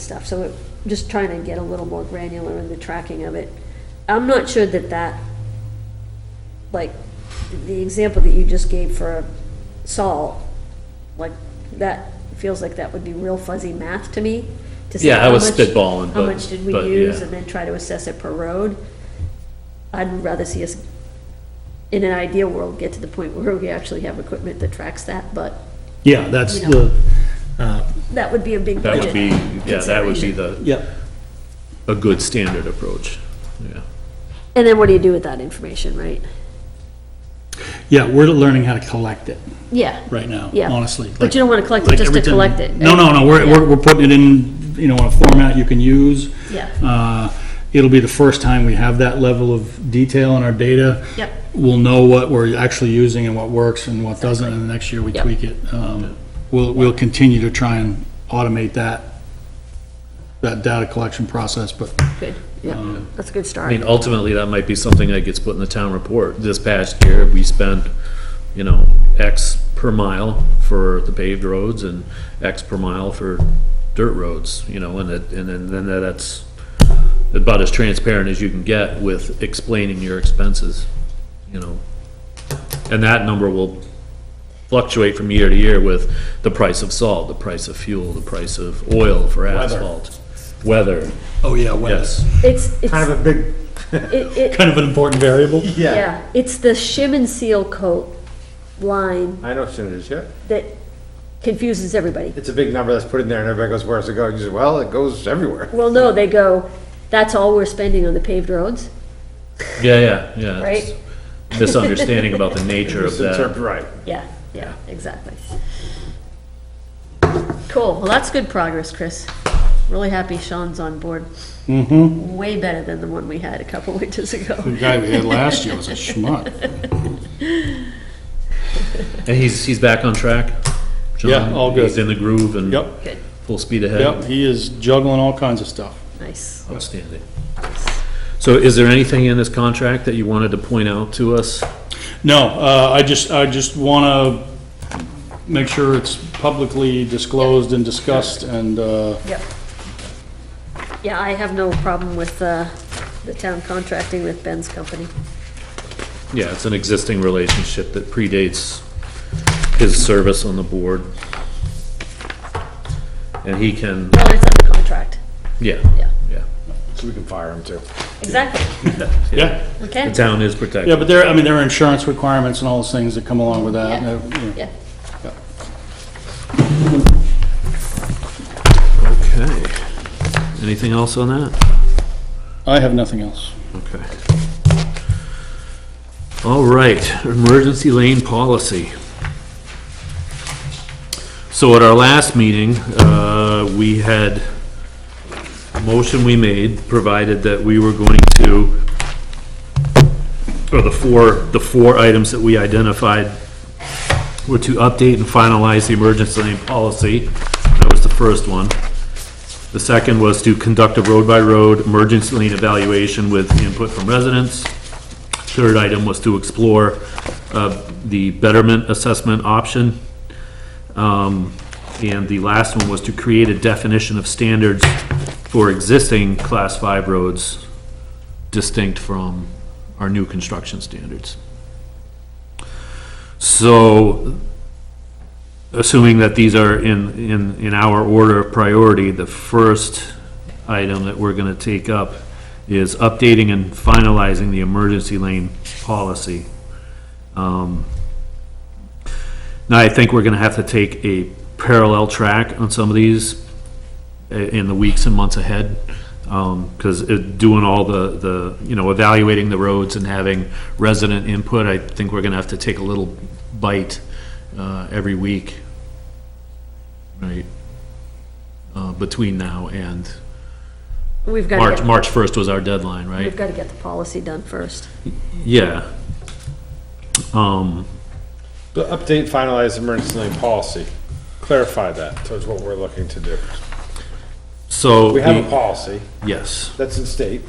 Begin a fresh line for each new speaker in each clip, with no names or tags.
stuff. So we're just trying to get a little more granular in the tracking of it. I'm not sure that that, like, the example that you just gave for salt, like, that feels like that would be real fuzzy math to me. to say
Yeah, I
how
was
much-
spitballing,
How
but-
much did we
but,
use
yeah.
and then try to assess it per road. I'd rather see us, in an ideal world, get to the point where we actually have equipment that tracks that, but
Yeah, that's
You know.
the, uh,
that would be a big
That
budget.
would be, yeah, that would be the,
yeah,
a good standard approach, yeah.
And then what do you do with that information, right?
yeah, we're learning how to collect it
Yeah.
right now,
Yeah.
honestly.
But you don't want to collect it
Like
just to
everything-
collect it.
No, no, no, we're,
Yeah.
we're, we're putting it in, you know, in a format you can use.
Yeah.
Uh, it'll be the first time we have that level of detail in our data.
Yep.
We'll know what we're actually using and what works and what doesn't, and the next year we
Yep.
tweak it. Um, we'll, we'll continue to try and automate that, that data collection process, but
Good,
Um,
yeah, that's a good
I
start.
mean, ultimately, that might be something that gets put in the town report. This past year, we spent, you know, X per mile for the paved roads and X per mile for dirt roads, you know, and it, and then, then that's about as transparent as you can get with explaining your expenses, you know. And that number will fluctuate from year to year with the price of salt, the price of fuel, the price of oil for asphalt, weather,
Oh, yeah, weather.
yes.
It's, it's,
Kind of a big,
it, it,
Kind of an important variable.
yeah.
yeah, it's the shim and seal coat line
I know what it is, yeah.
that confuses everybody.
It's a big number that's put in there and everybody goes, where's it going? You say, well, it goes everywhere.
Well, no, they go, that's all we're spending on the paved roads,
Yeah, yeah, yeah. it's-
right?
misunderstanding about the nature of
It's interpret-
that.
Right.
Yeah, yeah, exactly. Cool, well, that's good progress, Chris. Really happy Sean's on board. Mm-hmm. Way better than the one we had a couple winters ago.
The guy we had last year was a schmuck.
And he's, he's back on track? John?
Yeah, all good.
He's in the groove and
Yep.
Good,
full speed ahead?
Yep, he is juggling all kinds of stuff.
nice.
Outstanding. So is there anything in this contract that you wanted to point out to us?
No, uh, I just, I just want to make sure it's publicly disclosed and discussed, and, uh,
Yep. Yeah, I have no problem with uh, the town contracting with Ben's company.
Yeah, it's an existing relationship that predates his service on the board. And he can,
Well, it's under contract,
yeah,
yeah,
yeah.
So we can fire him too.
exactly,
yeah,
The
okay?
town is
yeah,
protected.
but there, I mean, there are insurance requirements and all those things that come along with that. and, uh, yeah.
Yeah,
Okay. Anything else on that?
I have nothing else.
Okay. All right, emergency lane policy. So at our last meeting, uh, we had, a motion we made, provided that we were going to, or the four, the four items that we identified were to update and finalize the emergency lane policy. That was the first one. The second was to conduct a road-by-road emergency lane evaluation with input from residents. Third item was to explore uh, the betterment assessment option. Um, And the last one was to create a definition of standards for existing Class 5 roads distinct from our new construction standards. So assuming that these are in, in, in our order of priority, the first item that we're gonna take up is updating and finalizing the emergency lane policy. Um, Now, I think we're gonna have to take a parallel track on some of these i- in the weeks and months ahead. Um, 'cause it, doing all the, the, you know, evaluating the roads and having resident input, I think we're gonna have to take a little bite, uh, every week. Right? Uh, between now and,
we've got
March,
to get,
March first was our deadline, right?
we've got to get the policy done first.
Yeah. Um,
The update finalized emergency lane policy. Clarify that towards what we're looking to do.
so.
We have a
the-
policy
Yes.
that's in state.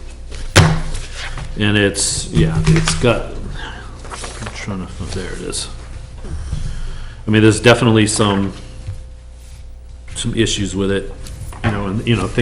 And it's, yeah, it's got, I'm trying to, oh, there it is. I mean, there's definitely some, some issues with it, you know, and, you know, things